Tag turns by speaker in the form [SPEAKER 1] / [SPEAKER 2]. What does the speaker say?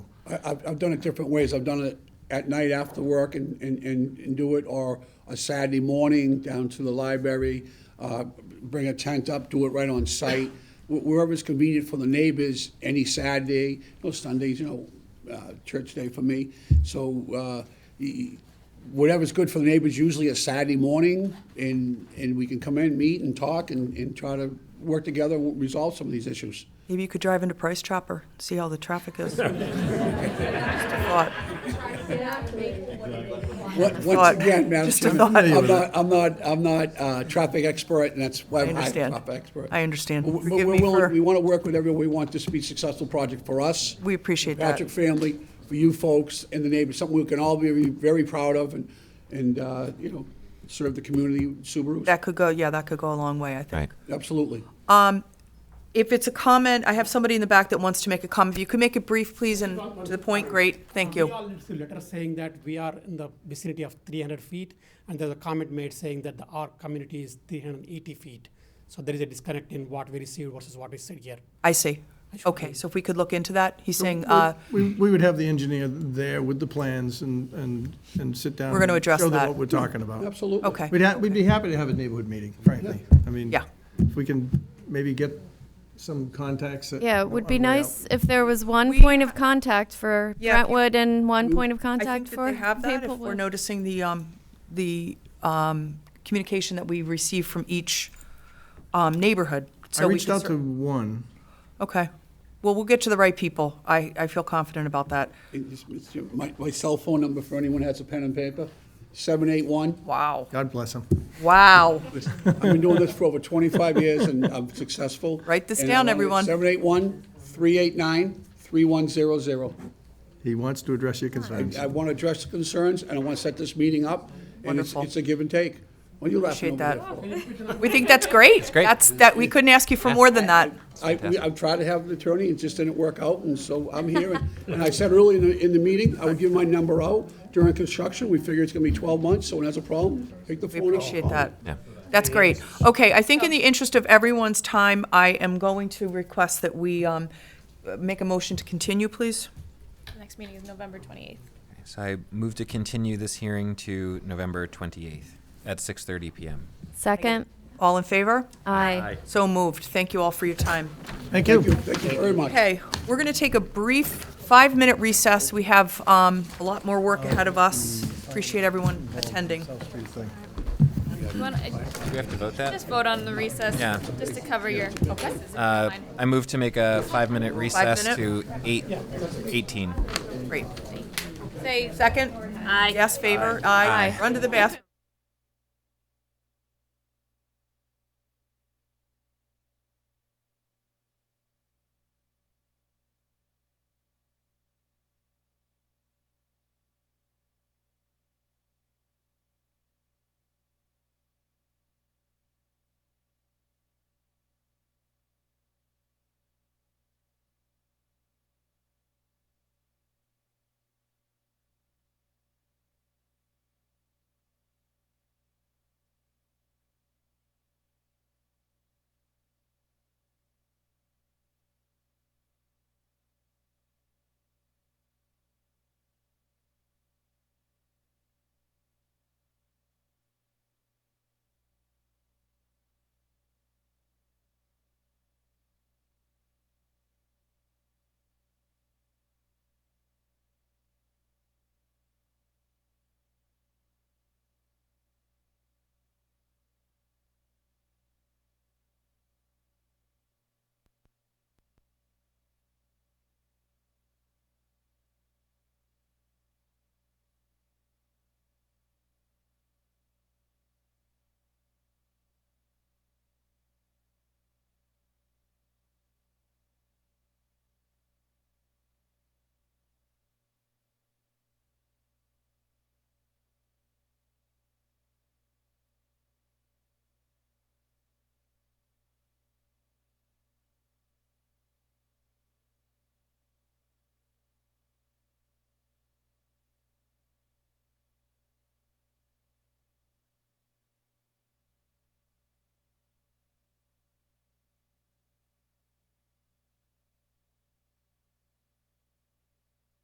[SPEAKER 1] I- I've, I've done it different ways. I've done it at night after work and, and, and and do it, or a Saturday morning down to the library, uh, bring a tent up, do it right on site, wh- wherever's convenient for the neighbors, any Saturday, you know, Sundays, you know, uh, church day for me. So, uh, y- y- whatever's good for the neighbors, usually a Saturday morning, and, and we can come in, meet and talk and, and try to work together, and resolve some of these issues.
[SPEAKER 2] Maybe you could drive into Price Chopper, see how the traffic is. Just a thought.
[SPEAKER 1] What- Once
[SPEAKER 2] thought.
[SPEAKER 1] again, Madam
[SPEAKER 2] Just a
[SPEAKER 1] Chairman,
[SPEAKER 2] thought.
[SPEAKER 1] I'm not, I'm not, I'm not a traffic expert, and that's why
[SPEAKER 2] I
[SPEAKER 1] I'm not a
[SPEAKER 2] understand.
[SPEAKER 1] traffic expert.
[SPEAKER 2] I understand.
[SPEAKER 1] But we-
[SPEAKER 2] Forgive
[SPEAKER 1] we're
[SPEAKER 2] me
[SPEAKER 1] willing-
[SPEAKER 2] for-
[SPEAKER 1] We want to work with everyone. We want this to be a successful project for us.
[SPEAKER 2] We appreciate that.
[SPEAKER 1] Patrick family, for you folks and the neighbors, something we can all be very proud of and, and, uh, you know, serve the community Subarus.
[SPEAKER 2] That could go, yeah, that could go a long way, I
[SPEAKER 3] Right.
[SPEAKER 2] think.
[SPEAKER 1] Absolutely.
[SPEAKER 2] If it's a comment, I have somebody in the back that wants to make a comment. If you could make it brief, please, and to the point, great, thank
[SPEAKER 4] Uh, We
[SPEAKER 2] you.
[SPEAKER 4] all received letters saying that we are in the vicinity of 300 feet, and there's a comment made saying that the, our community is 380 feet. So there is a disconnect in what we received versus what we said here.
[SPEAKER 2] I see. Okay, so if we could look into that, he's saying, uh,
[SPEAKER 5] We, we would have the engineer there with the plans and, and, and sit down.
[SPEAKER 2] We're gonna
[SPEAKER 5] and
[SPEAKER 2] address
[SPEAKER 5] Show
[SPEAKER 2] that.
[SPEAKER 5] them what we're talking about.
[SPEAKER 1] Absolutely.
[SPEAKER 2] okay.
[SPEAKER 5] We'd, ha- we'd be happy to have a neighborhood meeting, frankly. I mean,
[SPEAKER 2] Yeah.
[SPEAKER 5] if we can maybe get some contacts. that-
[SPEAKER 6] Yeah, it
[SPEAKER 2] Oh,
[SPEAKER 6] would be
[SPEAKER 5] on the way out.
[SPEAKER 6] nice if there was one point of contact for
[SPEAKER 2] Yeah, if you-
[SPEAKER 6] Brentwood and one point of
[SPEAKER 2] I think
[SPEAKER 6] contact
[SPEAKER 2] that they
[SPEAKER 6] for
[SPEAKER 2] have that, if we're
[SPEAKER 6] Maplewood.
[SPEAKER 2] noticing the, um, the, um, communication that we receive from each, um, neighborhood.
[SPEAKER 5] I
[SPEAKER 2] So we
[SPEAKER 5] reached
[SPEAKER 2] could
[SPEAKER 5] out
[SPEAKER 2] cer-
[SPEAKER 5] to one.
[SPEAKER 2] Okay. Well, we'll get to the right people. I, I feel confident about that.
[SPEAKER 1] And this- this- My, my cell phone number for anyone who has a pen and paper, seven eight one.
[SPEAKER 2] Wow.
[SPEAKER 5] God bless him.
[SPEAKER 2] Wow.
[SPEAKER 1] I've been doing this for over 25 years, and I'm successful.
[SPEAKER 2] Write this down, everyone.
[SPEAKER 1] 781-389-3100.
[SPEAKER 5] He wants to address your concerns.
[SPEAKER 1] I want to address the concerns, and I want to set this meeting up. and it's-
[SPEAKER 2] Wonderful.
[SPEAKER 1] It's a give and take. What are you laughing
[SPEAKER 2] Appreciate
[SPEAKER 1] over there for?
[SPEAKER 2] We think that's great. That's
[SPEAKER 3] great.
[SPEAKER 2] That's, that, we couldn't ask you for more than that.
[SPEAKER 1] I, we- I've tried to have an attorney, it just didn't work out, and so I'm here. And- And I said earlier in the, in the meeting, I would give my number out during construction. We figure it's going to be 12 months, so when there's a problem, take the
[SPEAKER 2] We
[SPEAKER 1] phone. out.
[SPEAKER 2] appreciate that.
[SPEAKER 3] Yeah.
[SPEAKER 2] That's great. Okay, I think in the interest of everyone's time, I am going to request that we, um, make a motion to continue, please.
[SPEAKER 7] Next meeting is November 28th.
[SPEAKER 3] So I move to continue this hearing to November 28th at 6:30 PM.
[SPEAKER 6] Second,
[SPEAKER 2] All in favor?
[SPEAKER 6] aye.
[SPEAKER 2] So moved. Thank you all for your time.
[SPEAKER 1] Thank
[SPEAKER 5] Thank
[SPEAKER 1] you,
[SPEAKER 5] you.
[SPEAKER 1] thank you very much.
[SPEAKER 2] Okay, we're going to take a brief five-minute recess. We have, um, a lot more work ahead of us. Appreciate everyone attending.
[SPEAKER 7] You wanna-
[SPEAKER 3] Do we have to vote that?
[SPEAKER 7] Just vote on the recess,
[SPEAKER 3] Yeah.
[SPEAKER 7] just to cover your. Okay.
[SPEAKER 3] Uh, I move to make a five-minute recess
[SPEAKER 2] minute?
[SPEAKER 3] to 8, 18.
[SPEAKER 2] Great.
[SPEAKER 7] Say
[SPEAKER 2] Second?
[SPEAKER 7] aye.
[SPEAKER 2] Yes, favor? Aye. Run to the bathroom.